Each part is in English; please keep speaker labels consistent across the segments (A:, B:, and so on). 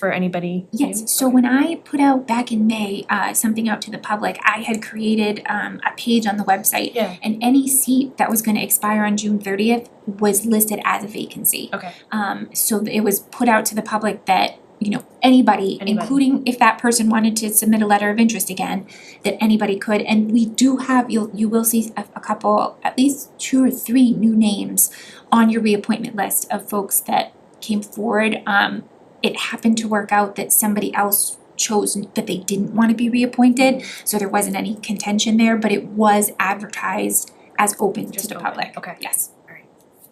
A: for anybody? new?
B: Yes, so when I put out back in May, uh, something out to the public, I had created, um, a page on the website.
A: Yeah.
B: And any seat that was gonna expire on June thirtieth was listed as a vacancy.
A: Okay.
B: Um, so it was put out to the public that, you know, anybody,
A: Anybody.
B: including if that person wanted to submit a letter of interest again, that anybody could, and we do have, you'll, you will see a, a couple, at least two or three new names on your reappointment list of folks that came forward, um, it happened to work out that somebody else chose that they didn't wanna be reappointed, so there wasn't any contention there, but it was advertised as open to
A: Just
B: the
A: open,
B: public,
A: okay.
B: yes.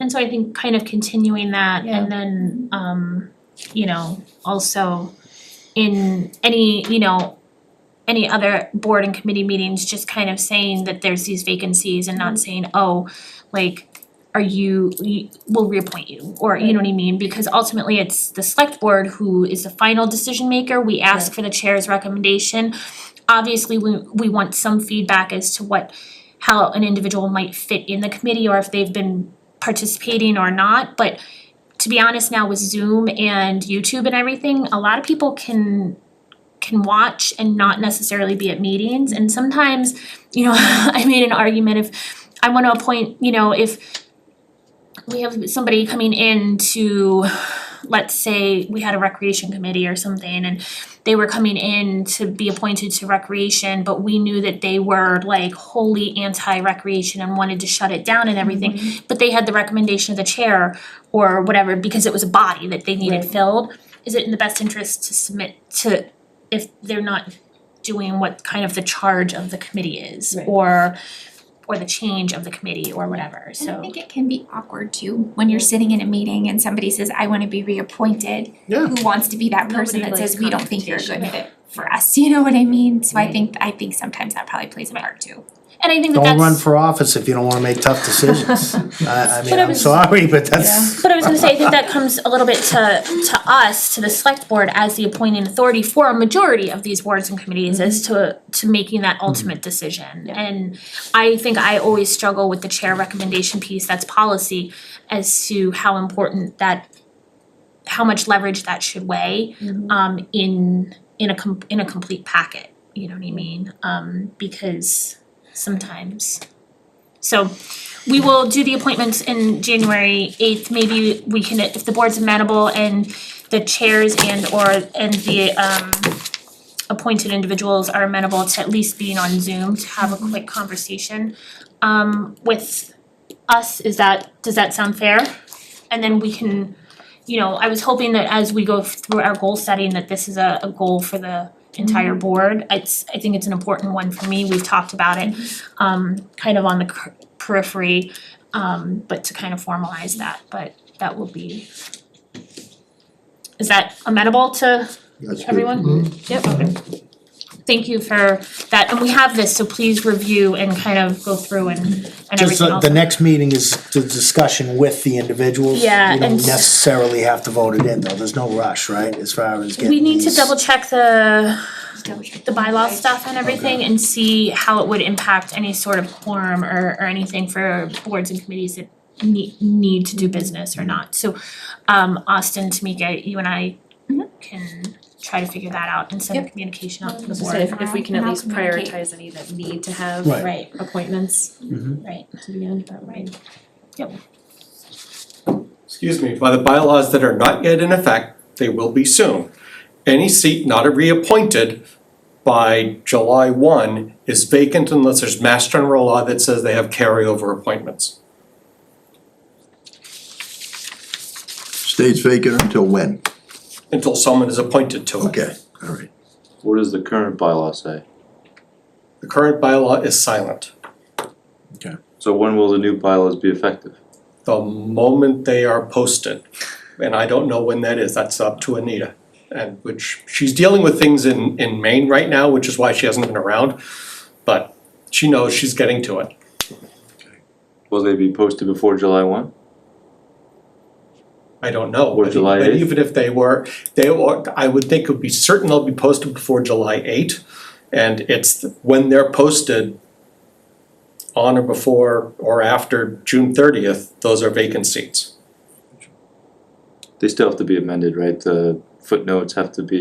C: And so I think kind of continuing that
A: Yeah.
C: and then um, you know, also in any, you know, any other board and committee meetings, just kind of saying that there's these vacancies and not saying, oh, like, are you, you- we'll reappoint you, or you know what I mean? Because ultimately, it's the select board who is the final decision maker, we ask for the chair's recommendation. Obviously, we we want some feedback as to what, how an individual might fit in the committee or if they've been participating or not, but to be honest now with Zoom and YouTube and everything, a lot of people can can watch and not necessarily be at meetings and sometimes, you know, I made an argument if I wanna appoint, you know, if we have somebody coming in to, let's say we had a recreation committee or something and they were coming in to be appointed to recreation, but we knew that they were like wholly anti-recreation and wanted to shut it down and everything but they had the recommendation of the chair or whatever because it was a body that they needed filled. Is it in the best interest to submit to if they're not doing what kind of the charge of the committee is
A: Right.
C: or or the change of the committee or whatever,
B: And I
C: so
B: think it can be awkward too, when you're sitting in a meeting and somebody says, I wanna be reappointed.
D: Yeah.
B: Who wants to be that person
A: Nobody
B: that says,
A: likes
B: we don't think you're a good
A: confrontation.
B: fit for us, you know what I mean? So I think, I think sometimes that probably plays a part too.
C: and I think that that's
D: Don't run for office if you don't wanna make tough decisions. I I mean,
C: I
D: I'm
C: was-
D: sorry, but that's,
C: But I was gonna say, I think that comes a little bit to to us, to the select board as the appointing authority for a majority of these boards and committees as to to making that ultimate decision. And I think I always struggle with the chair recommendation piece, that's policy, as to how important that how much leverage that should weigh um in in a com- in a complete packet, you know what I mean? Um because sometimes. So we will do the appointments in January eighth, maybe we can, if the board's amenable and the chairs and or and the um appointed individuals are amenable to at least being on Zoom to have a quick conversation um with us, is that, does that sound fair? And then we can, you know, I was hoping that as we go through our goal setting, that this is a a goal for the entire board. It's, I think it's an important one for me, we've talked about it um kind of on the cur- periphery, um but to kind of formalize that, but that will be. Is that amenable to
E: That's good.
C: everyone?
D: Mm-hmm.
C: Yep, okay. Thank you for that, and we have this, so please review and kind of go through and and
D: just uh,
C: everything
D: the,
C: else.
D: the next meeting is the discussion with the individuals.
C: Yeah,
D: You don't
C: and-
D: necessarily have to vote it in though, there's no rush, right, as far as getting
C: We need to
D: these-
C: double check the
B: Double check.
C: the bylaw stuff and everything and see how it would impact any sort of quorum or or anything for boards and committees that need need to do business or not. So um Austin, Tamika, you and I
B: Mhm.
C: can try to figure that out and send communication out to the
A: So say
C: board.
A: if if we can at
B: Now
A: least
B: communicate.
A: prioritize any that need to have
D: Right.
C: Right,
A: appointments
C: right,
A: to be on, that would be-
C: right.
F: excuse me, by the bylaws that are not yet in effect, they will be soon. Any seat not reappointed by July one is vacant unless there's mass general law that says they have carryover appointments.
E: Stays vacant until when?
F: Until someone is appointed to it.
E: Okay, all right.
G: What does the current bylaw say?
F: The current bylaw is silent.
G: So when will the new bylaws be effective?
F: The moment they are posted, and I don't know when that is, that's up to Anita. And which, she's dealing with things in in Maine right now, which is why she hasn't been around, but she knows she's getting to it.
G: Will they be posted before July one?
F: I don't know,
G: Or
F: but
G: July
F: but
G: 8th?
F: even if they were, they were, I would think it would be certain they'll be posted before July eighth. And it's th- when they're posted on or before or after June thirtieth, those are vacant seats.
G: They still have to be amended, right? The footnotes have to be